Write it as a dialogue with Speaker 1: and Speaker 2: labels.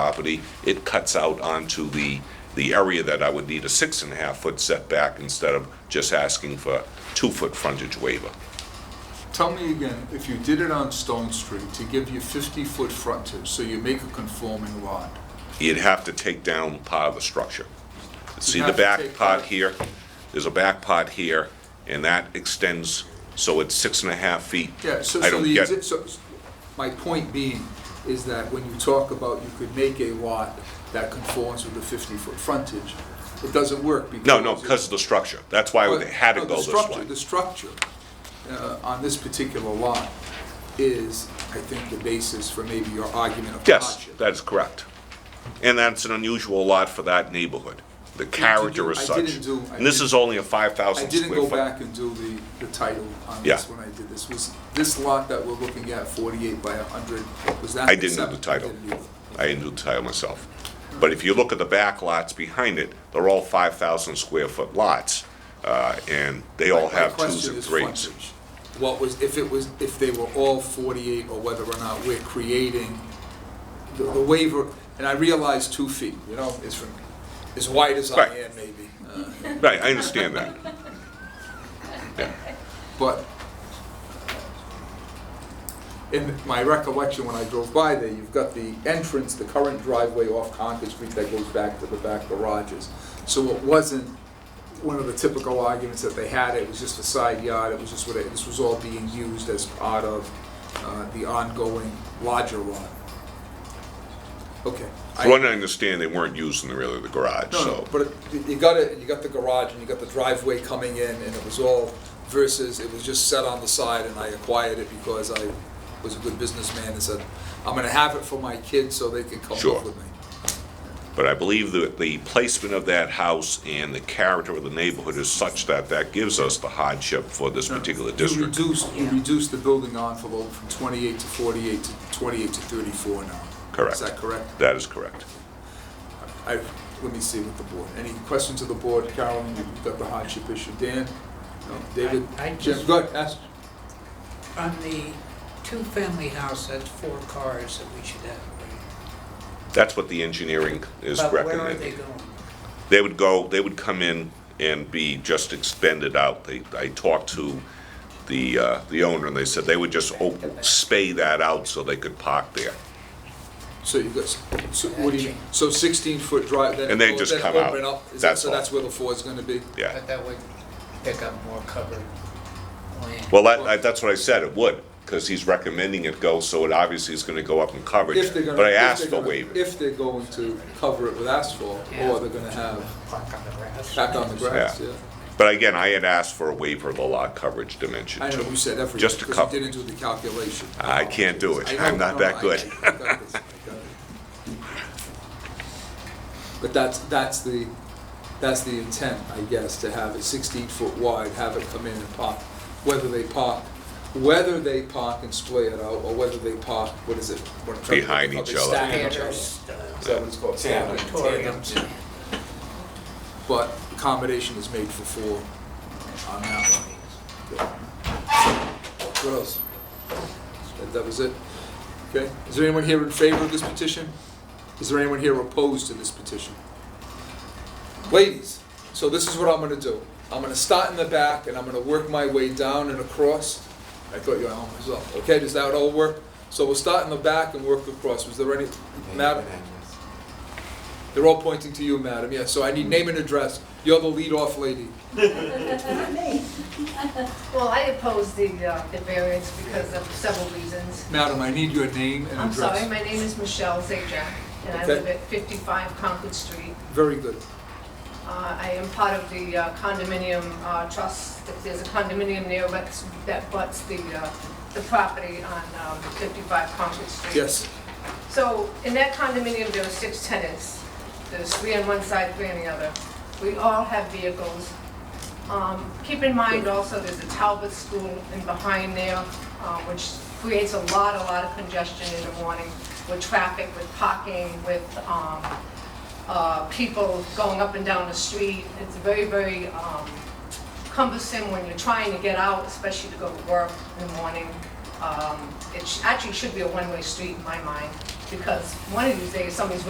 Speaker 1: property, it cuts out onto the, the area that I would need a six and a half foot setback instead of just asking for two foot frontage waiver.
Speaker 2: Tell me again, if you did it on Stone Street to give you 50-foot frontage, so you make a conforming lot,
Speaker 1: You'd have to take down part of the structure. See the
Speaker 2: have to
Speaker 1: back
Speaker 2: take
Speaker 1: part
Speaker 2: down-
Speaker 1: here, there's a back part here, and that extends, so it's six and a half feet.
Speaker 2: Yeah, so,
Speaker 1: I
Speaker 2: so
Speaker 1: don't
Speaker 2: the,
Speaker 1: get-
Speaker 2: exi- so, so my point being is that when you talk about you could make a lot that conforms with the fifty-foot frontage, it doesn't work because.
Speaker 1: No, no, because of the structure. That's why
Speaker 2: But-
Speaker 1: they had to
Speaker 2: no, the
Speaker 1: go this
Speaker 2: structure-
Speaker 1: way.
Speaker 2: The structure, uh, on this particular lot is, I think, the basis for maybe your argument of
Speaker 1: Yes,
Speaker 2: hardship.
Speaker 1: that is correct. And that's an unusual lot for that neighborhood. The character is
Speaker 2: I
Speaker 1: such.
Speaker 2: didn't do- I
Speaker 1: And this
Speaker 2: didn't-
Speaker 1: is only a
Speaker 2: I
Speaker 1: 5,000
Speaker 2: didn't
Speaker 1: square
Speaker 2: go
Speaker 1: foot.
Speaker 2: back and do the, the title on
Speaker 1: Yeah.
Speaker 2: this when I did this. Was this lot that we're looking at, forty-eight by hundred, was that?
Speaker 1: I didn't do the
Speaker 2: accepted?
Speaker 1: title.
Speaker 2: Didn't either.
Speaker 1: I didn't do the title myself. But if you look at the back lots behind it, they're all 5,000 square foot lots, uh, and they all
Speaker 2: My- my
Speaker 1: have twos
Speaker 2: question
Speaker 1: and
Speaker 2: is
Speaker 1: threes.
Speaker 2: frontage. What was, if it was, if they were all 48, or whether or not we're creating the the waiver, and I realize two feet, you know, is from, as wide as I
Speaker 1: Right.
Speaker 2: am maybe. uh,
Speaker 1: Right, I understand that. Yeah.
Speaker 2: But in my recollection, when I drove by there, you've got the entrance, the current driveway off Concord Street that goes back to the back garages. So it wasn't one of the typical arguments that they had, it was just a side yard, it was just what, it- this was all being used as part of uh, the ongoing lodger lot. Okay. I-
Speaker 1: For one, I understand they weren't using really the garage,
Speaker 2: no, no,
Speaker 1: so.
Speaker 2: but it- you got it, you got the garage and you got the driveway coming in and it was all versus, it was just set on the side and I acquired it because I was a good businessman and said, I'm gonna have it for my kids so they can come
Speaker 1: Sure.
Speaker 2: live with me.
Speaker 1: But I believe that the placement of that house and the character of the neighborhood is such that that gives us the hardship for this particular
Speaker 2: You
Speaker 1: district.
Speaker 2: reduced, you reduced the building envelope from twenty-eight to forty-eight to twenty-eight to thirty-four now.
Speaker 1: Correct.
Speaker 2: Is that correct?
Speaker 1: That is correct.
Speaker 2: I, let me see with the board. Any questions of the board? Carolyn, you've got the hardship issue. Dan? No. David?
Speaker 3: I- I
Speaker 2: Jim,
Speaker 3: just-
Speaker 2: go ahead, ask.
Speaker 3: On the two-family house, that's four cars that we should have, right?
Speaker 1: That's what the engineering is
Speaker 3: But where are they
Speaker 1: recommending.
Speaker 3: going?
Speaker 1: They would go, they would come in and be just extended out. They, I talked to the, uh, the owner and they said they would just op- spay that out so they could park there.
Speaker 2: So you got, s- so what do you, so sixteen foot drive, then.
Speaker 1: And they just
Speaker 2: then
Speaker 1: come
Speaker 2: open
Speaker 1: out.
Speaker 2: up, is that-
Speaker 1: That's
Speaker 2: So
Speaker 1: all.
Speaker 2: that's where the Ford's gonna be?
Speaker 1: Yeah.
Speaker 3: But that would pick up more covered land.
Speaker 1: Well, that, I- that's what I said, it would, because he's recommending it go, so it obviously is gonna go up in coverage.
Speaker 2: If they're gonna.
Speaker 1: But I
Speaker 2: if they're
Speaker 1: asked for
Speaker 2: gonna-
Speaker 1: waiver.
Speaker 2: If they're going to cover it with asphalt,
Speaker 3: Yeah.
Speaker 2: or they're gonna have
Speaker 3: Park on the grass.
Speaker 2: back on the grass,
Speaker 1: Yeah.
Speaker 2: yeah.
Speaker 1: But again, I had asked for a waiver of the lot coverage dimension
Speaker 2: I
Speaker 1: too.
Speaker 2: know, you said everything.
Speaker 1: Just a
Speaker 2: Because
Speaker 1: couple.
Speaker 2: you didn't do the calculation.
Speaker 1: I can't do it.
Speaker 2: I know,
Speaker 1: I'm not
Speaker 2: no,
Speaker 1: that
Speaker 2: I-
Speaker 1: good.
Speaker 2: I got this, I got it. But that's, that's the, that's the intent, I guess, to have it sixteen foot wide, have it come in and park, whether they park, whether they park and splay it out, or whether they park, what is it? What I'm trying to
Speaker 1: Behind
Speaker 2: think of,
Speaker 1: each
Speaker 2: they
Speaker 1: other.
Speaker 2: stack each other.
Speaker 3: Theaters,
Speaker 2: Is
Speaker 3: uh,
Speaker 2: that what it's called? Stack it.
Speaker 3: auditoriums.
Speaker 2: But accommodation is made for four on that one. What else? That- That was it? Okay, is there anyone here in favor of this petition? Is there anyone here opposed to this petition? Ladies, so this is what I'm gonna do. I'm gonna start in the back and I'm gonna work my way down and across. I thought you were on myself, okay, does that all work? So we'll start in the back and work across. Was there any, Madam? They're all pointing to you, madam, yes, so I need name and address. You're the lead-off lady.
Speaker 4: Well, I oppose the, uh, the variance because of several reasons.
Speaker 2: Madam, I need your name and
Speaker 4: I'm
Speaker 2: address.
Speaker 4: sorry, my name is Michelle Zajac, and I
Speaker 2: Okay.
Speaker 4: live at 55 Concord Street.
Speaker 2: Very good.
Speaker 4: Uh, I am part of the uh, condominium uh, trust, If there's a condominium there that's- that butts the, uh, the property on um, 55 Concord Street.
Speaker 2: Yes,
Speaker 4: So in that condominium, there were six tenants. There's three on one side, three on the other. We all have vehicles. Um, Keep in mind also, there's a Talbot School in behind there, uh, which creates a lot, a lot of congestion in the morning with traffic, with parking, with um, uh, people going up and down the street. It's very, very um, cumbersome when you're trying to get out, especially to go to work in the morning. Um, It sh- actually should be a one-way street in my mind, because one of these days, somebody's